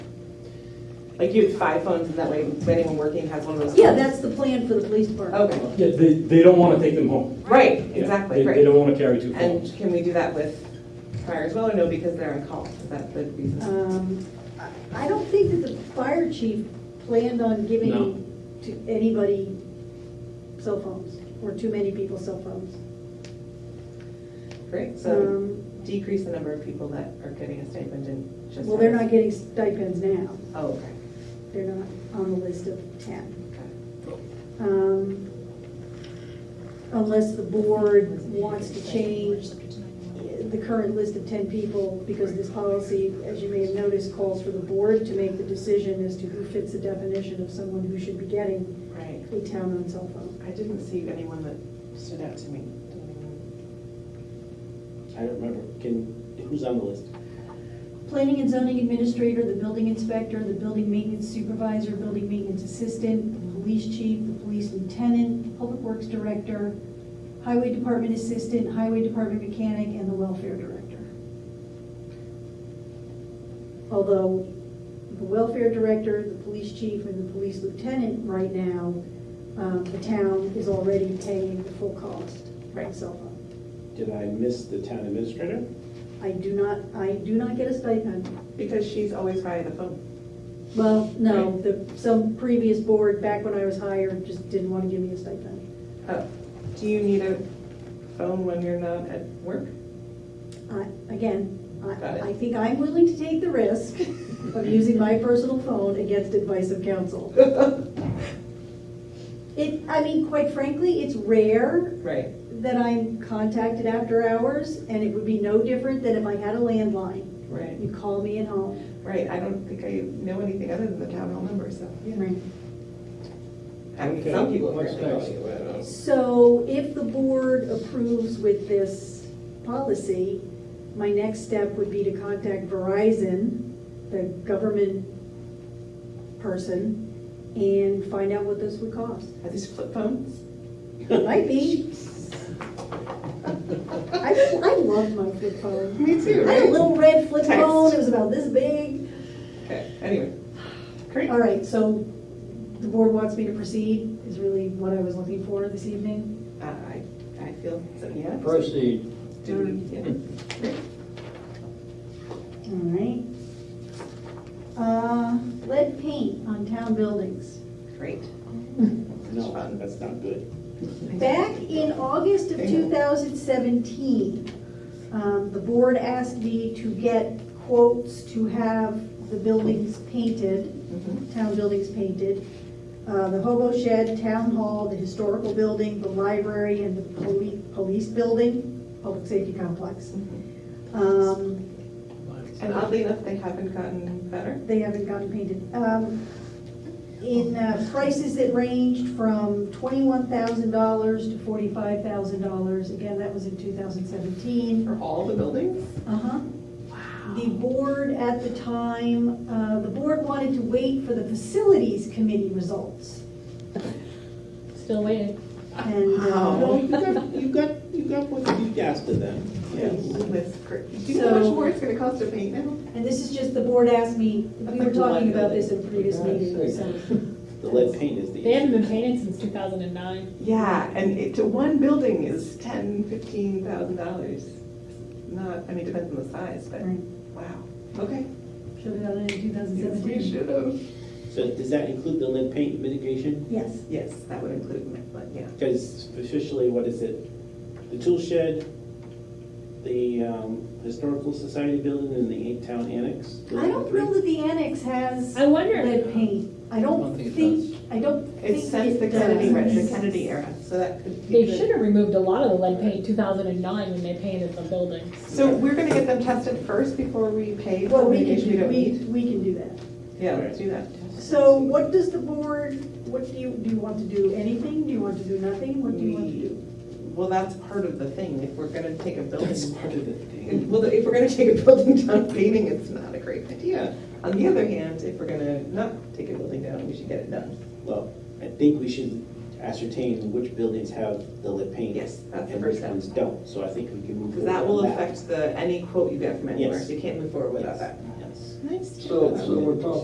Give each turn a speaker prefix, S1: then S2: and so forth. S1: Like you have five phones and that way if anyone working has one of those.
S2: Yeah,
S1: phones.
S2: that's the plan for the police department.
S1: Okay,
S3: Yeah, they, they don't want to take them home.
S1: right,
S3: Yeah,
S1: exactly,
S3: they- They
S1: right.
S3: don't want to carry two phones.
S1: And can we do that with fire as well or no, because they're on call? Is that the reason?
S2: Um, I- I don't think that the fire chief planned on
S3: No.
S2: giving to anybody cell phones, or too many people cell phones.
S1: Great, so
S2: Um,
S1: decrease the number of people that are getting a stipend and just.
S2: Well, they're
S1: have-
S2: not getting stipends now,
S1: Oh, okay.
S2: they're not on the list of ten.
S1: Got it.
S2: Um, Unless the board wants to change the current list of 10 people, because this policy, as you may have noticed, calls for the board to make the decision as to who fits the definition of someone who should be getting
S1: Right.
S2: a town-owned cell phone.
S1: I didn't see anyone that stood out to me. Did anyone?
S4: I don't remember, can, who's on the list?
S5: Planning and zoning administrator, the building inspector, the building maintenance supervisor, building maintenance assistant, the police chief, the police lieutenant, public works director, highway department assistant, highway department mechanic, and the welfare director.
S2: Although the welfare director, the police chief, and the police lieutenant right now, um, the town is already paying the full cost of
S1: Right.
S2: cell phone.
S4: Did I miss the town administrator?
S2: I do not, I do not get a stipend.
S1: Because she's always by the phone.
S2: Well, no, the, some previous board, back when I was hired, just didn't want to give me a stipend.
S1: Oh, do you need a phone when you're not at work?
S2: I- Again,
S1: Got it.
S2: I, I think I'm willing to take the risk of using my personal phone against advice of counsel. It, I mean, quite frankly, it's rare
S1: Right.
S2: that I'm contacted after hours, and it would be no different than if I had a landline.
S1: Right.
S2: You call me at home.
S1: Right, I don't think I know anything other than the town hall number, so. I mean, some people
S4: What's
S1: apparently
S4: next?
S1: call you.
S2: So if the board approves with this policy, my next step would be to contact Verizon, the government person, and find out what this would cost.
S1: Are these flip phones?
S2: It Might be. I, I loved my flip phone.
S1: Me
S2: I
S1: too,
S2: had a little red flip
S1: Text.
S2: phone, it was about this big.
S1: Okay, anyway. Great. Uh,
S2: All right, so the board wants me to proceed, is really what I was looking for this evening.
S1: Uh, I, I feel, so, yeah.
S6: Proceed.
S1: Do, yeah.
S2: All right. Uh, lead paint on town buildings.
S1: Great.
S4: No, that's not good.
S2: Back in August of 2017, um, the board asked me to get quotes to have the buildings painted,
S1: Mhm.
S2: town buildings painted. Uh, The hobo shed, town hall, the historical building, the library, and the police, police building, public safety complex. Um,
S1: And oddly enough, they haven't gotten better.
S2: they haven't gotten painted. Um, In uh, prices that ranged from $21,000 to $45,000, again, that was in 2017.
S1: For all the buildings?
S2: Uh-huh. The board at the time, uh, the board wanted to wait for the facilities committee results.
S7: Still waiting.
S2: And,
S4: No,
S2: uh,
S4: you got, you got, you got what you asked of them. Yes.
S1: That's great. Do you know how much
S2: So-
S1: more it's gonna cost to paint now?
S2: and this is just, the board asked me, we were talking about this in a previous meeting, so.
S4: The lead paint is the.
S7: They haven't been painted since 2009.
S1: Yeah, and it, to one building is ten, fifteen thousand dollars. Not, I mean, depends on the size, but,
S2: Right.
S1: wow, okay.
S2: Should have done it in
S1: Yes, we
S2: 2017.
S1: should have.
S4: So does that include the lead paint mitigation?
S2: Yes.
S1: Yes, that would include my blood, yeah.
S4: Because officially, what is it? The tool shed, the um, historical society building, and the eight town annex? Those are
S2: I
S4: the
S2: don't
S4: three?
S2: know that the annex has.
S7: I wonder,
S2: lead paint. I don't
S6: think it
S2: think, I don't think
S1: It's since
S2: it
S1: the Kennedy,
S2: does.
S1: right, the Kennedy era, so that could be
S7: they
S1: good.
S7: should have removed a lot of the lead paint 2009 when they painted the buildings.
S1: So we're gonna get them tested first before we pay for
S2: Well, we
S1: mitigation we
S2: can,
S1: don't
S2: we,
S1: need?
S2: we can do that.
S1: Yeah, let's do that.
S2: So what does the board, what do you, do you want to do anything? Do you want to do nothing? What do you want to do?
S1: Well, that's part of the thing, if we're gonna take a
S4: That's
S1: building,
S4: part of the thing.
S1: well, if we're gonna take a building down painting, it's not a great idea.
S4: Yeah,
S1: On the other hand, if we're gonna not take a building down, we should get it done.
S4: well, I think we should ascertain which buildings have the lead paint.
S1: Yes, that's the
S4: And
S1: first
S4: which
S1: step.
S4: ones don't, so I think we can move
S1: Because
S4: forward
S1: that will
S4: on that.
S1: affect the, any quote you get from anywhere,
S4: Yes.
S1: you can't move forward without
S4: Yes,
S1: that.
S4: Yes.
S1: Nice.
S6: So, so we're talking